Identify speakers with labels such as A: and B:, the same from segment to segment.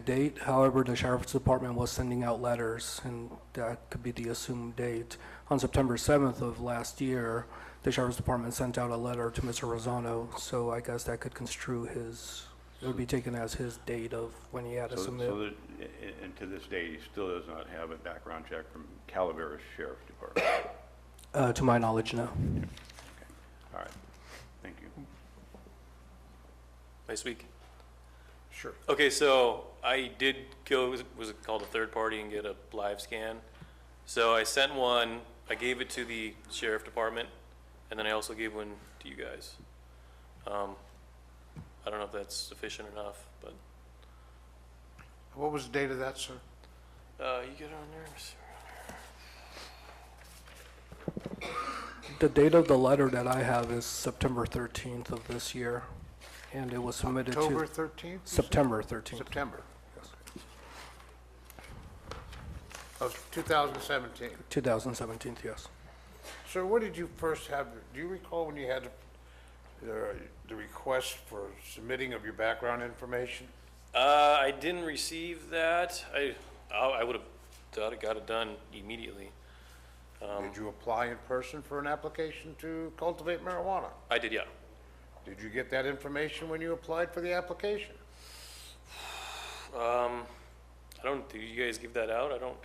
A: date, however, the sheriff's department was sending out letters, and that could be the assumed date. On September 7th of last year, the sheriff's department sent out a letter to Mr. Rosano, so I guess that could construe his, it would be taken as his date of when he had to
B: So- So,
A: submit.
B: that- a- and to this day, he still does not have a background check from Calaveras Sheriff Department.
A: Uh, To my knowledge, no.
B: All right, thank you.
C: Nice week.
D: Sure.
C: Okay, so I did go, was- was it called a third party and get a live scan? So I sent one, I gave it to the sheriff department, and then I also gave one to you guys. Um, I don't know if that's sufficient enough, but,
D: What was the date of that, sir?
C: uh, you get on there, Mr.
A: The date of the letter that I have is September 13th of this year, and it was submitted to...
D: October 13th?
A: September 13th.
D: September. Of 2017.
A: 2017, yes.
D: Sir, what did you first have, do you recall when you had the, the request for submitting of your background information?
C: Uh, I didn't receive that. I, I I would've got it, got it done immediately.
D: Did you apply in person for an application to cultivate marijuana?
C: I did, yeah.
D: Did you get that information when you applied for the application?
C: Um, I don't, do you guys give that out? I don't,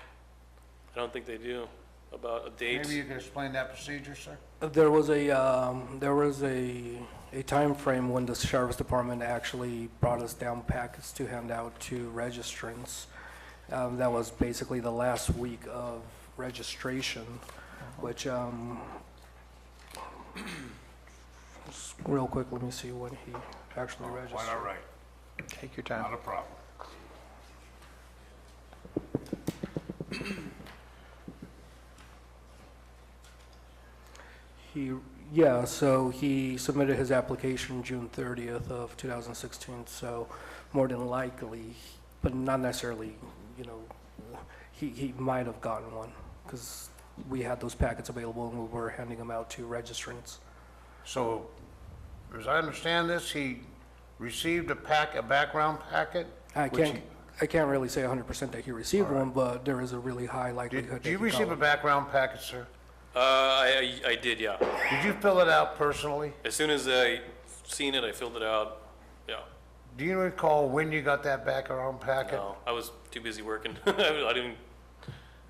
C: I don't think they do about a date.
D: Maybe you can explain that procedure, sir?
A: There was a, um, there was a, a timeframe when the sheriff's department actually brought us down packets to hand out to registrants. Um, that was basically the last week of registration, which, um, just real quick, let me see when he actually registered.
D: right,
A: Take your time.
D: a problem.
A: He, yeah, so he submitted his application June 30th of 2016, so more than likely, but not necessarily, you know, he, he might have gotten one, because we had those packets available and we were handing them out to registrants.
D: So, as I understand this, he received a pack, a background packet?
A: I
D: which
A: can't, I can't really say 100% that he received one, but there is a really high
D: he-
A: likelihood
D: Did,
A: that
D: did
A: he
D: you
A: got
D: receive a
A: one.
D: background packet, sir?
C: Uh, I, I I did, yeah.
D: Did you fill it out personally?
C: As soon as I seen it, I filled it out. Yeah,
D: Do you recall when you got that background packet?
C: no, I was too busy working. I didn't,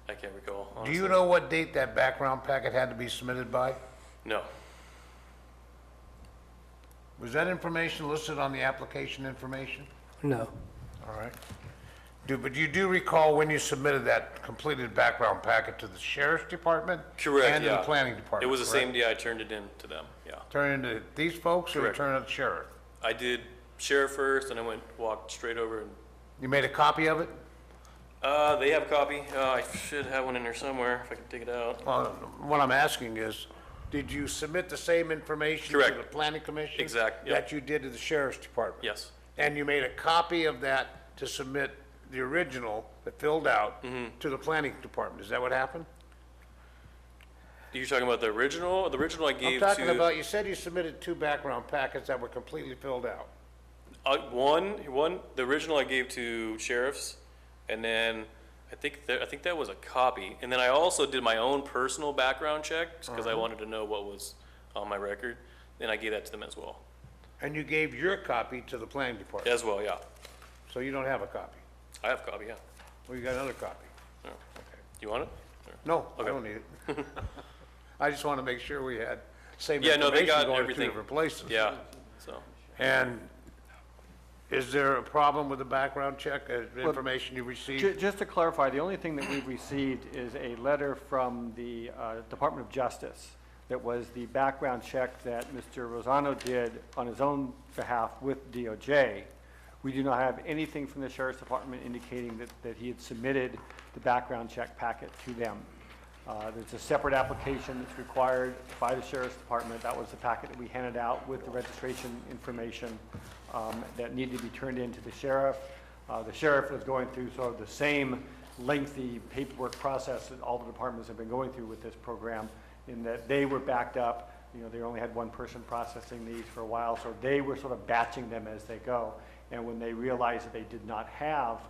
C: I can't recall.
D: Do
C: honestly.
D: you know what date that background packet had to be submitted by?
C: No,
D: Was that information listed on the application information?
A: No,
D: All right. Do, but you do recall when you submitted that completed background packet to the sheriff's department?
C: correct, yeah.
D: And to the planning
C: It
D: department,
C: was the same
D: correct?
C: day I turned it in to them, yeah.
D: Turn it to these folks or you
C: Correct.
D: turn it to the sheriff?
C: I did sheriff first, and I went, walked straight over and,
D: You made a copy of it?
C: uh, they have a copy. Uh, I should have one in there somewhere if I can dig it out.
D: Well, what I'm asking is, did you submit the same information to
C: Correct.
D: the planning commission?
C: Exact, yep.
D: That you did to the sheriff's department?
C: Yes,
D: And you made a copy of that to submit the original that filled out
C: Mm-hmm.
D: to the planning department? Is that what happened?
C: you're talking about the original? The original I
D: I'm
C: gave to.
D: talking about, you said you submitted two background packets that were completely filled out.
C: Uh, one, one, the original I gave to sheriffs, and then I think that, I think that was a copy. And then I also did my own personal background check because I wanted to know what was on my record. Then I gave that to them as well.
D: And you gave your copy to the planning department?
C: As well, yeah.
D: So you don't have a copy?
C: I have a copy, yeah.
D: Well, you got another copy?
C: Yeah. You want it? Sure.
D: No, I
C: Okay.
D: don't need it. I just want to make sure we had same
C: Yeah, no, they
D: information
C: got
D: going to two
C: everything.
D: different places.
C: Yeah. So
D: And is there a problem with the background check, uh, information you
E: Ju-
D: received?
E: Just to clarify, the only thing that we've received is a letter from the uh, Department of Justice that was the background check that Mr. Rosano did on his own behalf with DOJ. We do not have anything from the Sheriff's Department indicating that, that he had submitted the background check packet to them. Uh, There's a separate application that's required by the Sheriff's Department. That was the packet that we handed out with the registration information um, that needed to be turned in to the sheriff. Uh, The sheriff was going through sort of the same lengthy paperwork process that all the departments have been going through with this program, in that they were backed up, you know, they only had one person processing these for a while, so they were sort of batching them as they go. And when they realized that they did not have